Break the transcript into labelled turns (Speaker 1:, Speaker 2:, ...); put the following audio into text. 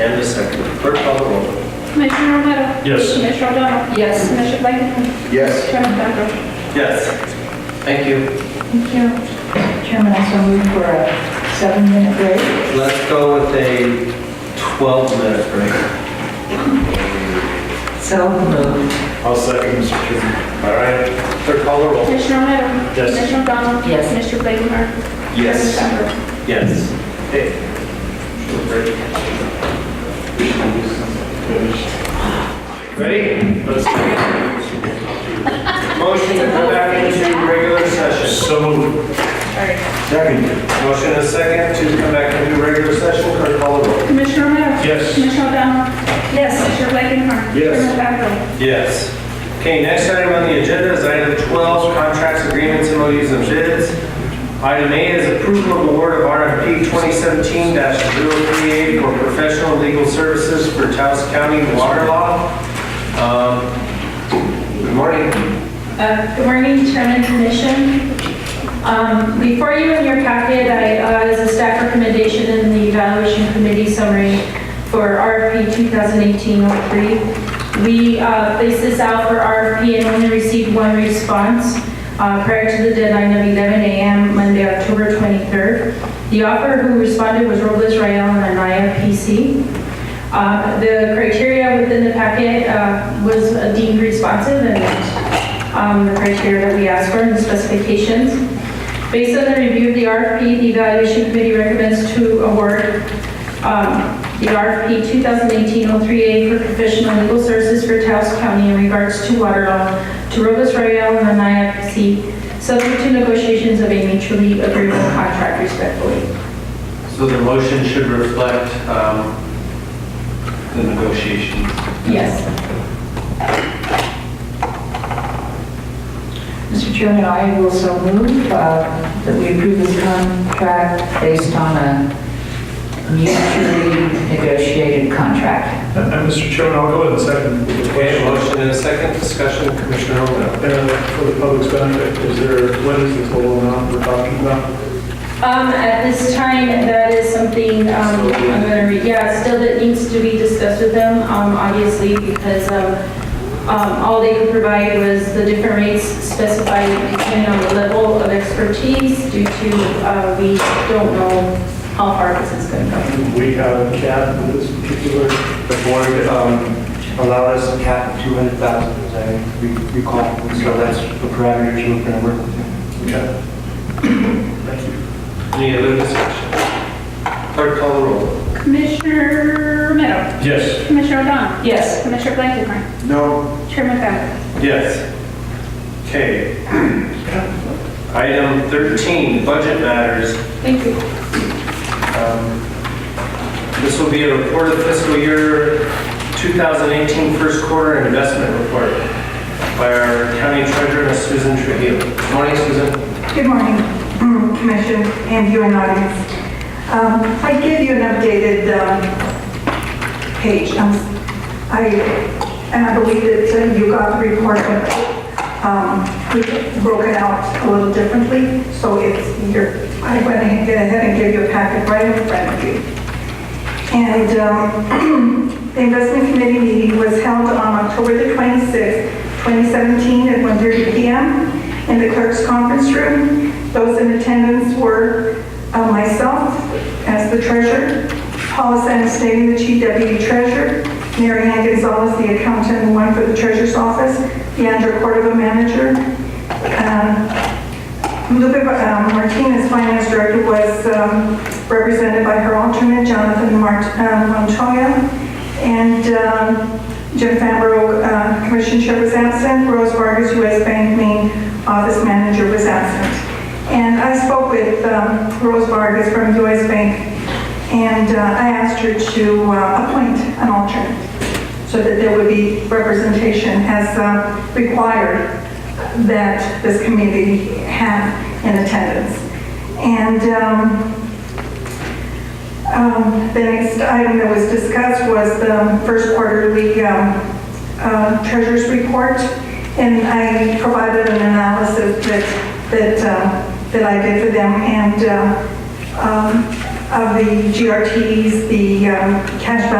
Speaker 1: And a second. Clerk call the roll.
Speaker 2: Commissioner Romero?
Speaker 1: Yes.
Speaker 2: Commissioner O'Donnell? Yes. Commissioner Blakenham?
Speaker 1: Yes.
Speaker 2: Chairman Bender?
Speaker 1: Yes. Thank you.
Speaker 3: Thank you. Chairman, I so move for a seven-minute break.
Speaker 1: Let's go with a 12-minute break.
Speaker 3: So moved.
Speaker 4: I'll second, Mr. Chairman.
Speaker 1: All right. Clerk call the roll.
Speaker 2: Commissioner Romero?
Speaker 4: Yes.
Speaker 2: Commissioner O'Donnell?
Speaker 3: Yes.
Speaker 2: Commissioner Blakenham?
Speaker 1: Yes.
Speaker 2: Chairman Bender?
Speaker 1: Yes. Hey. Short break. Ready? Let's go. Motion to go back into regular session.
Speaker 4: So moved.
Speaker 1: Second. Motion and a second to come back into regular session. Clerk call the roll.
Speaker 2: Commissioner Romero?
Speaker 4: Yes.
Speaker 2: Commissioner O'Donnell? Yes. Commissioner Blakenham?
Speaker 4: Yes.
Speaker 2: Chairman Bender?
Speaker 1: Yes. Okay, next item on the agenda is item 12, contracts, agreements, MOUs, and bids. Item A is approval of award of RFP 2017-038 for professional legal services for Taos County water law. Um, Good morning.
Speaker 5: Uh, Good morning, Chairman and Commission. Um, Before you in your packet, I, uh, is a staff recommendation in the evaluation committee summary for RFP 2018-03. We uh, placed this out for RFP and only received one response uh, prior to the deadline of 11 a.m. Monday, October 23rd. The offer who responded was Robles Royal and Anaya PC. Uh, The criteria within the packet uh, was deemed responsive and um, the criteria that we asked for and the specifications. Based on the review of the RFP, the evaluation committee recommends to award um, the RFP 2018-038 for professional legal services for Taos County in regards to water law to Robus Royal and Anaya PC, subject to negotiations of a mutually agreeable contract respectfully.
Speaker 1: So the motion should reflect um, the negotiations.
Speaker 5: Yes.
Speaker 3: Mr. Chairman, I will so move uh, that we approve this contract based on a mutually negotiated contract.
Speaker 4: And and Mr. Chairman, I'll go ahead and second. the
Speaker 1: Okay,
Speaker 4: question.
Speaker 1: motion and a second discussion, Commissioner Romero.
Speaker 4: Uh, For the public's benefit, is there, what is the total amount we're talking about?
Speaker 5: Um, at this time, that is something, um, I'm gonna read, yeah, still that needs to be discussed with them, um, obviously, because, um, um, all they could provide was the different rates specified depending on the level of expertise due to, uh, we don't know how far this is gonna go.
Speaker 4: We have a cap for this particular,
Speaker 6: the board um, allowed us a cap of 200,000, as I re- recall. So that's the parameters we're going to work with.
Speaker 4: okay. Thank you.
Speaker 1: Any other discussion? Clerk call the roll.
Speaker 2: Commissioner Romero?
Speaker 4: Yes.
Speaker 2: Commissioner O'Donnell?
Speaker 5: Yes.
Speaker 2: Commissioner Blakenham?
Speaker 1: No.
Speaker 2: Chairman Bender?
Speaker 1: Yes. Okay. Item 13, budget matters.
Speaker 5: Thank you.
Speaker 1: Um, This will be a report of fiscal year 2018 first quarter investment report by our county treasurer, Miss Susan Trujillo. Good Morning, Susan.
Speaker 7: Good morning, Commission and you and audience. Um, I gave you an updated um, page. Um, I, and I believe that uh, you got the report, but um, we broke it out a little differently, so it's, your I went ahead and gave you a packet right in front of you. And um, the investment committee meeting was held on October the 26th, 2017, at 1:30 PM in the clerk's conference room. Those in attendance were uh, myself as the treasurer, Paula Sanestating, the chief deputy treasurer, Mary Ann Gonzalez, the accountant, and one for the treasurer's office, Leandra Cordova, manager, um, Lupe um, Martinez, finance director, was um, represented by her alternate, Jonathan Mart- uh, Montoya, and um, Jim Fambro, uh, commission chair, was absent. Rose Vargas, U.S. Bank main office manager, was absent. And I spoke with um, Rose Vargas from U.S. Bank, and uh, I asked her to uh, appoint an alternate so that there would be representation as um, required that this committee have in attendance. And um, um, the next item that was discussed was the first quarterly um, uh, treasurer's report, and I provided an analysis that, that, uh, that I did for them, and uh, um, of the GRTs, the um, cash balance